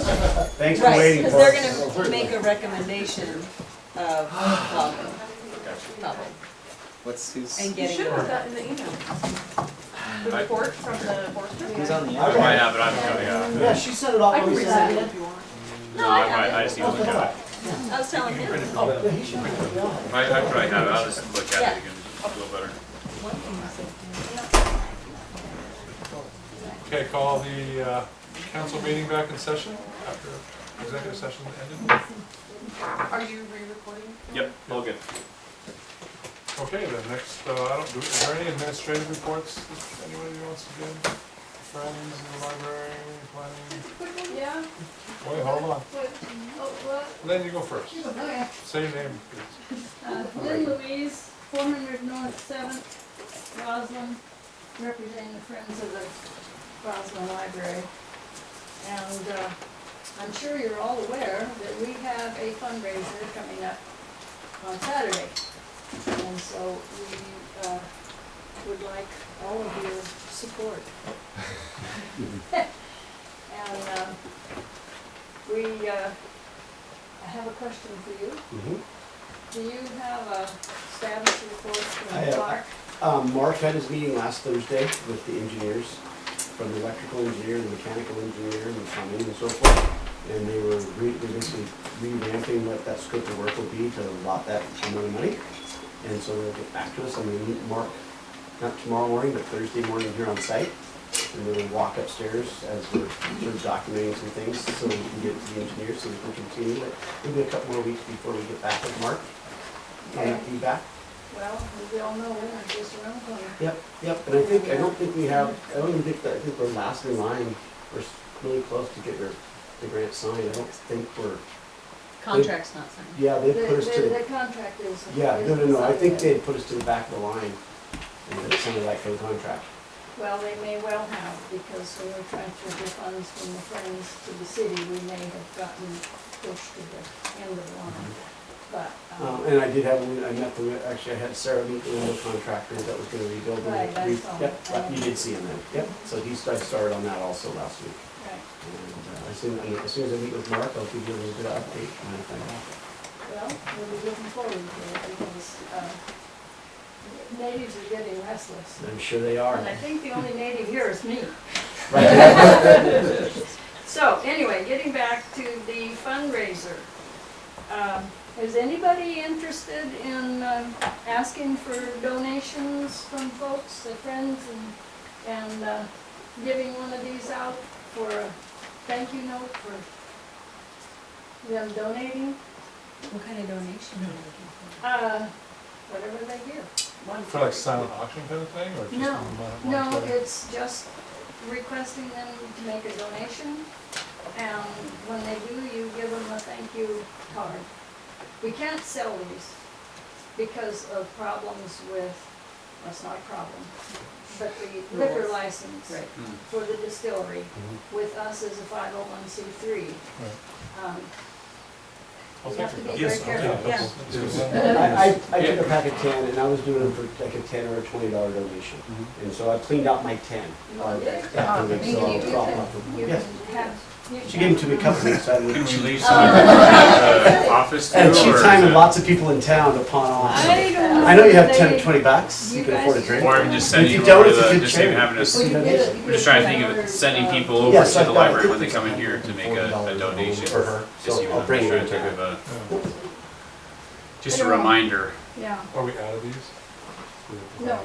Thanks for Right, waiting because for they're us. gonna make a recommendation of level, level, What's who's and You getting. should have gotten the email. The report from the forester. who's on the I other? I have it, I haven't got it. Yeah, she sent it off. I can when we resend sent it if you want. No, I, I- I just need to look at it. I was telling him, Oh, yeah, he should print it out. I, I probably have it, I'll just look at it again, just feel better. Okay, call the uh, council meeting back in session after executive session ended. Are you re-recording? Yep, all good. Okay, then, next, uh, I don't, do- is there any administrative reports that anybody wants to give? Friends in the library, planning, Yeah. wait, hold on, What, oh, what, Lynn, you go first, okay. say your name, please. Uh, Lynn Louise, four hundred North Seventh, Roslyn, representing the Friends of the Roslyn Library. And, uh, I'm sure you're all aware that we have a fundraiser coming up on Saturday. And so we, uh, would like all of your support. And, um, we, uh, I have a question for you. Mm-hmm. Do you have a status report I from have. Clark? Um, Mark had his meeting last Thursday with the engineers, from the electrical engineer, the mechanical engineer, and the plumbing and so forth. And they were re, they're basically revamping what that scope of work will be to allot that amount of money. And so they'll get back to us, I'm gonna meet Mark, not tomorrow morning, but Thursday morning here on site. And then we'll walk upstairs as we're sort of documenting some things, so we can get to the engineers, so we can continue it. It'll be a couple more weeks before we get back with Mark, on that feedback. Well, we all know winter's just around the corner. Yep, yep, and I think, I don't think we have, I don't even think that, I think we're last in line, we're s- really close to get your, the grant signed, I don't think we're, contract's not signed. yeah, they The- put us to, the- the The contract is. yeah, no, no, is no, I think decided. they put us to the back of the line, and it sounded like for the contract. Well, they may well have, because when we transferred the funds from the Friends to the city, we may have gotten pushed to the end of the line. But, Um, um, and I did have, one- I met the, actually, I had Sarah meet the window contractor that was gonna rebuild it. Right, I saw Yep, that. you did see him then, yep, so he, st- I started on that also last week. right, And uh, as soon, I- as soon as I meet with Mark, I'll give you a little bit of update on that. well, we'll be looking forward to it, because uh, natives are getting restless. I'm sure they are. And I think the only native here is me. Right. So, anyway, getting back to the fundraiser. Um, Is anybody interested in um, asking for donations from folks, their friends, and, and uh, giving one of these out for a thank you note for them donating? What kind of donation are you looking Uh, Whatever they give. For like silent auction kind of thing, or just? No, mon- No, monetary? it's just requesting them to make a donation, and when they do, you give them a thank you card. We can't sell these because of problems with, well, it's not a problem, but the liquor Rules. license for? Right. for the distillery with us as a five oh one C three. Um, I'll You take have to it. be very Yes, I'll take careful, it. yeah. Let's do that. I, I, I took a pack of ten and I was doing it for like a ten or a twenty dollar donation. Mm-hmm. And so I cleaned out my ten. uh, after the week, so I'll drop them off. You Yes. have. you She gave them to me a couple weeks, I Did didn't. you leave some of the office too, or And she is timed it? lots of people in town to pawn off. I don't. I know you have know ten they- or twenty bucks, you you can guys afford a should- drink. Or I'm just If sending you you don't, over it's a the, good just even having charity. us, Well, I'm you did it. just trying to think of it, sending people over Yes, to I've the got a library when they fifty come in here to make a, dollar a donation. for her, Just so even, I'll I'm bring just her trying to think down. of a, Yeah. just a reminder. Yeah, Are we out of these? No.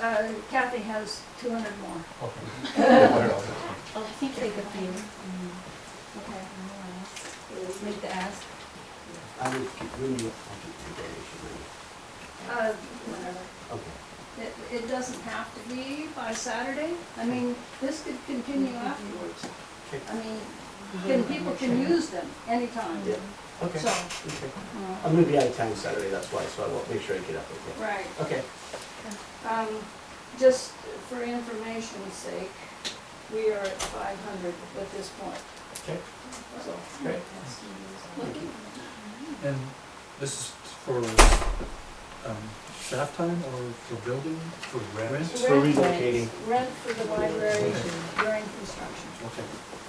uh, Kathy has two hundred more. Okay. Oh, I think they mm, could be, okay, make the ask. I would keep, when you, I'll keep the donation. maybe. Uh, whatever. Okay. It, it doesn't have to be by Saturday. I mean, this could continue afterwards. I mean, can, people can use them anytime, Yeah. so, Okay, okay. uh, I'm gonna be out of town Saturday, that's why, so I will make sure I get up, okay? right. Okay. Um, just for information's sake, we are at five hundred at this point. Okay. So. Great. And this is for um, staff time or for building? For rent? It's for Rent- relocating. Rent for the library during construction. Okay.